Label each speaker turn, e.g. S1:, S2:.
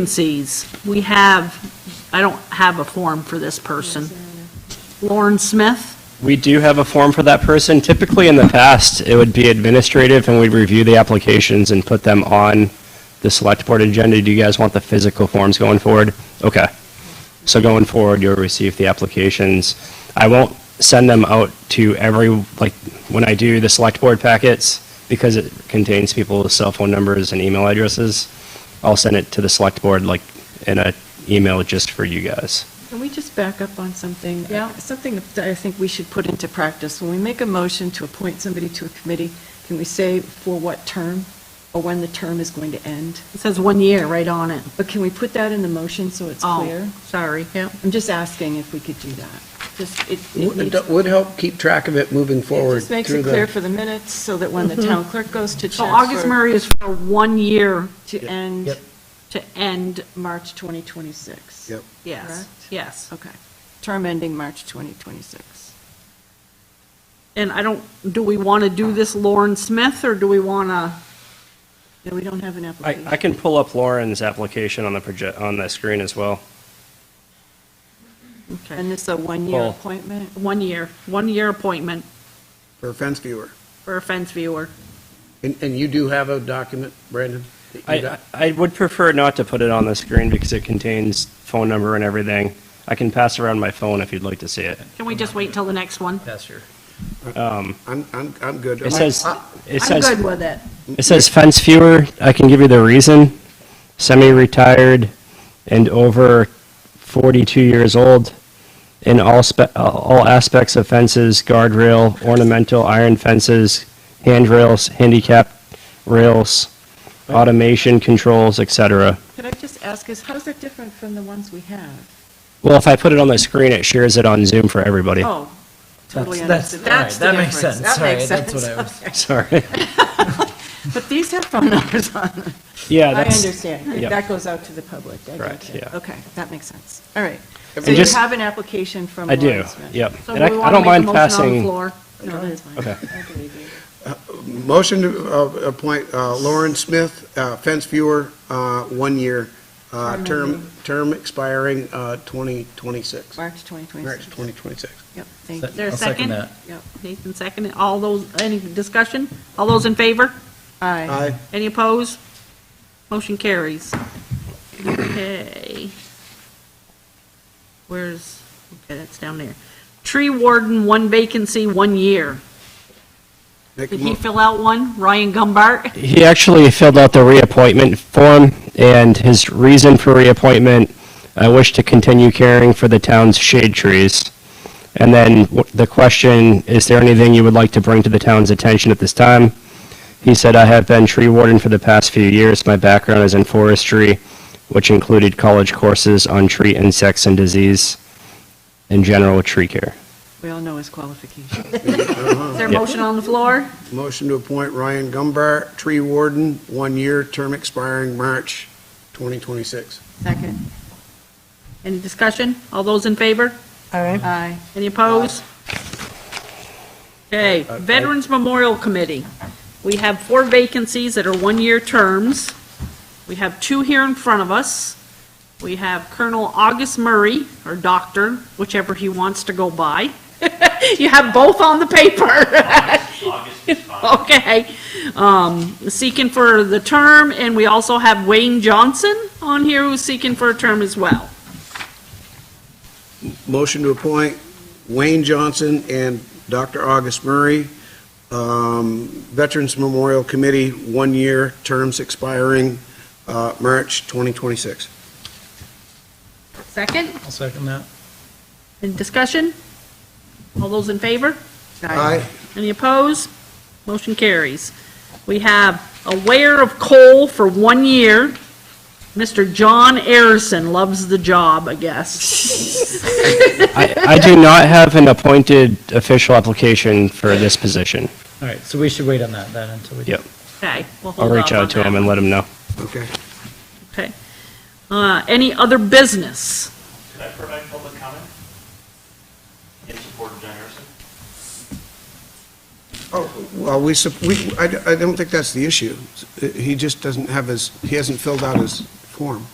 S1: Vacancies, we have, I don't have a form for this person. Lauren Smith,
S2: We do have a form for that person. Typically, in the past, it would be administrative, and we'd review the applications and put them on the select board agenda. Do you guys want the physical forms going forward? Okay. So going forward, you'll receive the applications. I won't send them out to every, like, when I do the select board packets, because it contains people's cell phone numbers and email addresses. I'll send it to the select board, like, in an email just for you guys.
S3: Can we just back up on something? Uh,
S1: Yeah.
S3: Something that I think we should put into practice. When we make a motion to appoint somebody to a committee, can we say for what term or when the term is going to end?
S1: it says one year right on it.
S3: But can we put that in the motion so it's
S1: Oh,
S3: clear?
S1: sorry. Yep.
S3: I'm just asking if we could do that. Just, it it
S4: Would
S3: needs,
S4: it would help keep track of it moving
S3: it
S4: uh, forward.
S3: just makes
S4: through
S3: it
S4: the- Mm-hmm.
S3: clear for the minutes so that when the town clerk goes to
S1: So August
S3: transfer
S1: Murray is for one year
S3: to end
S4: Yep.
S1: to end,
S3: March 2026.
S4: Yep.
S1: yes,
S3: Correct.
S1: yes.
S3: Okay. Term ending March 2026.
S1: And I don't, do we want to do this Lauren Smith, or do we want to?
S3: No, we don't have an
S2: I,
S3: application.
S2: I can pull up Lauren's application on the project, on the screen as well.
S3: And this is a one-year
S2: Well-
S3: appointment?
S1: One year, one year appointment
S4: For a fence viewer.
S1: for a fence viewer.
S4: And, and you do have a document, Brandon? that you
S2: I,
S4: got?
S2: I would prefer not to put it on the screen because it contains phone number and everything. I can pass around my phone if you'd like to see it.
S1: Can we just wait till the next one?
S4: I'm, I'm, I'm good. Uh,
S2: It says, it
S1: I'm good
S2: says,
S1: with it.
S2: it says fence viewer. I can give you the reason. Semi-retired and over 42 years old in all spe, all aspects of fences, guardrail, ornamental, iron fences, handrails, handicap rails, automation controls, et cetera.
S3: Could I just ask us, how's that different from the ones we have?
S2: Well, if I put it on the screen, it shares it on Zoom for everybody.
S3: Oh, totally
S5: That's-
S3: understood. That's
S5: that's-
S3: the
S5: all right, that makes
S3: difference.
S5: sense.
S3: That makes
S5: Sorry, that's what I
S3: sense. Okay.
S2: Sorry.
S3: But these have phone numbers on them.
S2: Yeah,
S3: I
S2: that's,
S3: understand.
S2: Yep.
S3: That goes out to the public. I
S2: Correct,
S3: get it.
S2: yeah.
S3: Okay, that makes sense. All right.
S4: And
S3: So you
S2: just-
S3: have an application from
S2: I do,
S3: Lauren Smith?
S2: yep.
S1: So
S2: And I
S1: do we
S2: I
S1: want
S2: don't
S1: to make
S2: mind
S1: a motion on the
S2: passing,
S1: floor?
S3: No, that's fine.
S2: Okay.
S3: I believe you.
S4: Motion to uh, appoint uh, Lauren Smith, uh, fence viewer, uh, one year, uh, term, term expiring uh, 2026.
S3: March
S4: March
S3: 2026.
S4: 2026.
S3: Yep, thank
S5: Is
S3: you.
S1: there a
S5: I'll
S1: second?
S5: second that.
S3: Yep.
S1: Nathan seconded. All those, any discussion? All those in favor?
S3: Aye.
S4: Aye.
S1: Any opposed? Motion carries. Okay. Where's, okay, that's down there. Tree warden, one vacancy, one year.
S4: Make a
S1: Did he
S4: mo-
S1: fill out one? Ryan Gumbart?
S2: he actually filled out the reappointment form and his reason for reappointment, I wish to continue caring for the town's shade trees. And then w- the question, is there anything you would like to bring to the town's attention at this time? He said, I have been tree warden for the past few years. My background is in forestry, which included college courses on tree insects and disease and general tree care.
S3: We all know his qualifications.
S1: Is there a motion on the floor?
S4: Uh-huh. Motion to appoint Ryan Gumbart, tree warden, one year, term expiring March 2026.
S3: Second.
S1: Any discussion? All those in favor?
S3: Aye.
S1: Any opposed? Okay, Veterans Memorial Committee. We have four vacancies that are one-year terms. We have two here in front of us. We have Colonel August Murray, or Doctor, whichever he wants to go by. You have both on the paper. Okay. Um, Seeking for the term, and we also have Wayne Johnson on here who's seeking for a term as well.
S4: Motion to appoint Wayne Johnson and Dr. August Murray, um, Veterans Memorial Committee, one-year terms expiring uh, March 2026.
S1: Second?
S5: I'll second that.
S1: Any discussion? All those in favor?
S4: Aye.
S1: Any opposed? Motion carries. We have aware of coal for one year. Mr. John Arison loves the job, I guess.
S2: I, I do not have an appointed official application for this position.
S5: All right, so we should wait on that then until we.
S2: Yep.
S1: Okay, we'll
S2: I'll
S1: hold
S2: reach
S1: off on
S2: out to
S1: that
S2: him
S1: one.
S2: and let him know.
S4: Okay.
S1: Okay. Uh, Any other business?
S6: Could I provide public comment in support of John Harrison?
S4: Well, we, sup- we- I I don't think that's the issue. He just doesn't have his, he hasn't filled out his form.